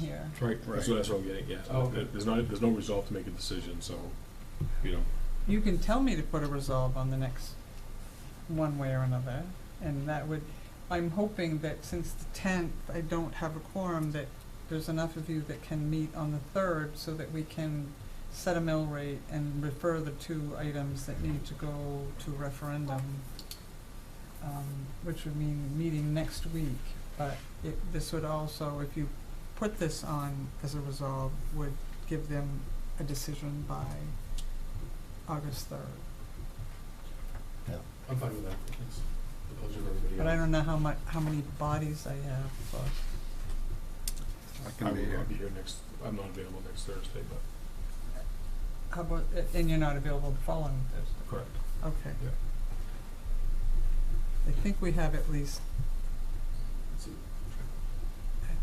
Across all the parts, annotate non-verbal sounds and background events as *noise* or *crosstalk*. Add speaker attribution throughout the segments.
Speaker 1: year.
Speaker 2: Right,
Speaker 3: Right.
Speaker 2: that's what, that's what I'm getting, yeah.
Speaker 1: Oh, okay.
Speaker 2: There's not, there's no resolve to make a decision, so, you know,
Speaker 4: You can tell me to put a resolve on the next, one way or another, and that would, I'm hoping that since the tenth, I don't have a quorum, that there's enough of you that can meet on the third, so that we can set a mill rate and refer the two items that need to go to referendum, um, which would mean meeting next week, but it, this would also, if you put this on as a resolve, would give them a decision by August third.
Speaker 5: I'm fine with that, it's the pleasure of everybody
Speaker 4: But I
Speaker 5: else.
Speaker 4: don't know how mu- how many bodies I have, but
Speaker 3: I
Speaker 2: I
Speaker 3: can be
Speaker 2: will
Speaker 3: here.
Speaker 2: not be here next, I'm not available next Thursday, but.
Speaker 4: how about, and you're not available the following Thursday?
Speaker 2: Correct.
Speaker 4: Okay.
Speaker 2: Yeah.
Speaker 4: I think we have at least,
Speaker 5: It's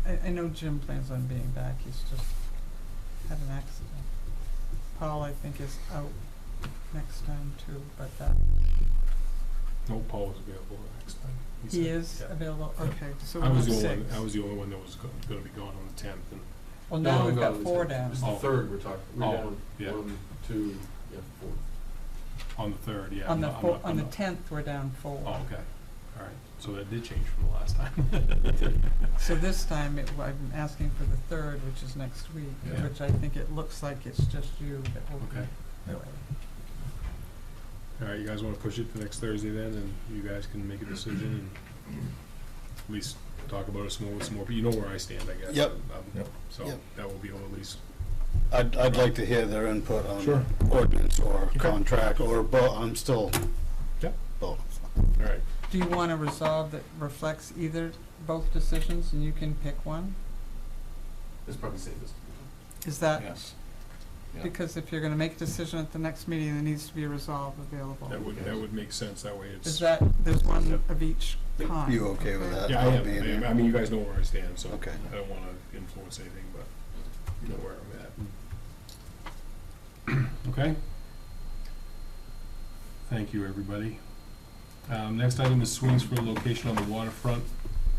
Speaker 5: a-
Speaker 4: I, I know Jim plans on being back, he's just had an accident. Paul, I think, is out next time too, but that,
Speaker 2: No, Paul is available next time.
Speaker 4: he
Speaker 2: said.
Speaker 4: is
Speaker 2: Yeah.
Speaker 4: available,
Speaker 2: Yeah.
Speaker 4: okay, so
Speaker 2: I
Speaker 4: we're
Speaker 2: was the
Speaker 4: on
Speaker 2: only,
Speaker 4: six.
Speaker 2: I was the only one that was go- gonna be gone on the tenth, and,
Speaker 4: Well,
Speaker 5: No,
Speaker 4: now we've
Speaker 5: Oh, no,
Speaker 4: got
Speaker 5: it's-
Speaker 4: four down.
Speaker 5: It's the
Speaker 2: Oh.
Speaker 5: third we're talking, we're
Speaker 2: Oh,
Speaker 5: down
Speaker 2: yeah.
Speaker 5: one, two, yeah, four.
Speaker 2: on the third, yeah.
Speaker 4: On
Speaker 2: I'm
Speaker 4: the
Speaker 2: not- I'm
Speaker 4: four,
Speaker 2: not-
Speaker 4: on
Speaker 2: I'm
Speaker 4: the
Speaker 2: not-
Speaker 4: tenth, we're down four.
Speaker 2: Oh, okay, all right, so that did change from the last time.
Speaker 4: So this time, it, I'm asking for the third, which is next week,
Speaker 2: Yeah.
Speaker 4: which I think it looks like it's just you that will
Speaker 2: Okay.
Speaker 4: be away.
Speaker 2: All right, you guys wanna push it to next Thursday then, and you guys can make a decision and at least talk about it some more with some more, but you know where I stand, I guess.
Speaker 3: Yep.
Speaker 2: Um,
Speaker 3: Yep.
Speaker 2: So,
Speaker 3: Yep.
Speaker 2: that will be at least
Speaker 3: I'd, I'd like to hear their input
Speaker 2: Sure.
Speaker 3: on ordinance or
Speaker 2: Okay.
Speaker 3: contract or both, I'm still
Speaker 2: Yep.
Speaker 3: both.
Speaker 2: All right,
Speaker 4: Do you want a resolve that reflects either, both decisions, and you can pick one?
Speaker 5: It's probably safest.
Speaker 4: Is that,
Speaker 3: Yes. yeah.
Speaker 4: because if you're gonna make a decision at the next meeting, there needs to be a resolve available.
Speaker 2: that would,
Speaker 5: Okay.
Speaker 2: that would make sense, that way it's.
Speaker 4: Is that, there's one
Speaker 2: Yep.
Speaker 4: of each kind?
Speaker 3: You okay with that?
Speaker 2: Yeah, I
Speaker 3: I'll
Speaker 2: am,
Speaker 3: be in
Speaker 2: I am.
Speaker 3: there.
Speaker 2: I mean, you guys know where I stand, so
Speaker 3: Okay.
Speaker 2: I don't wanna influence anything, but you know where I'm at. *clears throat* Okay? Thank you, everybody. Um, next item is swings for a location on the waterfront,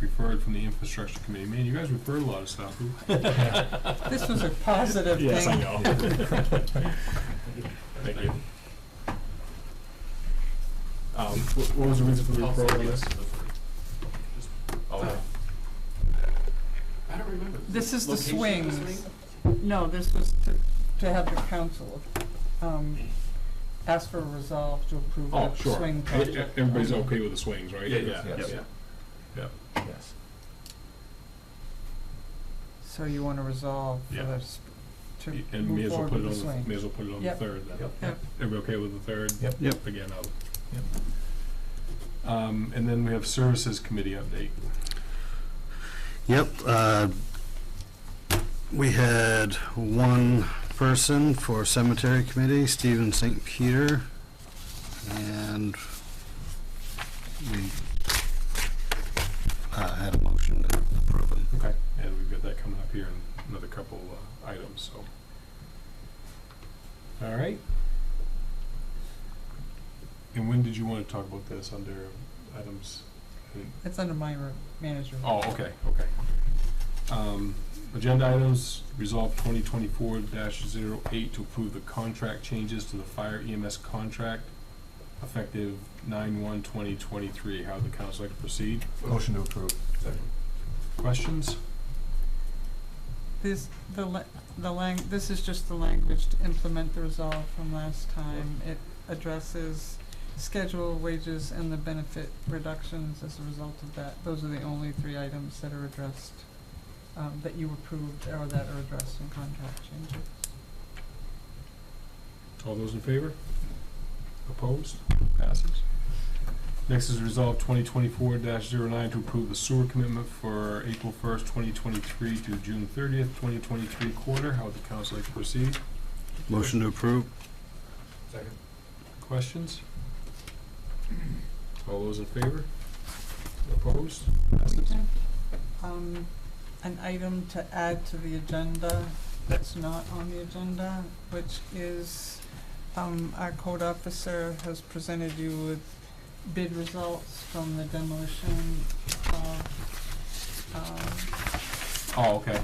Speaker 2: referred from the infrastructure committee. Man, you guys referred a lot of stuff.
Speaker 4: This was a positive thing.
Speaker 2: Yes, I know. Thank you. Um, wh- what was the reason for the
Speaker 5: I'll
Speaker 2: referral on
Speaker 5: say
Speaker 2: this?
Speaker 5: yes to the three. Just-
Speaker 2: Oh,
Speaker 5: I don't remember.
Speaker 4: This is the
Speaker 5: Location of
Speaker 4: swings.
Speaker 5: swing?
Speaker 4: No, this was to, to have the council, um, ask for a resolve to approve
Speaker 2: Oh,
Speaker 4: the
Speaker 2: sure.
Speaker 4: swing
Speaker 2: E- e-
Speaker 4: project. Um,
Speaker 2: Everybody's okay with the swings, right?
Speaker 5: Yeah, yeah,
Speaker 2: Yeah,
Speaker 5: yes.
Speaker 2: yeah.
Speaker 5: Yes.
Speaker 4: So you wanna resolve for
Speaker 2: Yeah.
Speaker 4: the, sp- to
Speaker 2: Y- And may
Speaker 4: move
Speaker 2: as well
Speaker 4: forward
Speaker 2: put it
Speaker 4: with
Speaker 2: on,
Speaker 4: the
Speaker 2: the- may
Speaker 4: swing.
Speaker 2: as well put it on the
Speaker 4: Yep.
Speaker 2: third then.
Speaker 5: Yep.
Speaker 4: Yep.
Speaker 2: Everybody okay with the third?
Speaker 5: Yep.
Speaker 3: Yep.
Speaker 2: Again, I'll. Um, and then we have services committee update.
Speaker 3: Yep, uh, we had one person for cemetery committee, Stephen St. Peter, and we uh, had a motion to approve it.
Speaker 2: Okay. And we've got that coming up here in another couple, uh, items, so. All right. And when did you wanna talk about this, under items?
Speaker 4: It's under my re- manager.
Speaker 2: Oh, okay, okay. Um, Agenda items, resolve twenty twenty-four 8 to approve the contract changes to the fire EMS contract effective nine one twenty twenty-three. How would the council like to proceed?
Speaker 5: Motion to approve. Second.
Speaker 2: Questions?
Speaker 4: This, the la- the lang, this is just the language to implement the resolve from last time. It addresses schedule, wages, and the benefit reductions as a result of that. Those are the only three items that are addressed, um, that you approved or that are addressed in contract changes.
Speaker 2: All those in favor? Opposed? Passes. Next is resolve twenty twenty-four 9 to approve the sewer commitment for April first, twenty twenty-three to June thirtieth, twenty twenty-three quarter. How would the council like to proceed?
Speaker 3: Motion to approve?
Speaker 5: Second.
Speaker 2: Questions? All those in favor? Opposed? Passes.
Speaker 4: Um, an item to add to the agenda that's not on the agenda, which is, um, our code officer has presented you with bid results from the demolition of, uh, um,
Speaker 2: Oh, okay,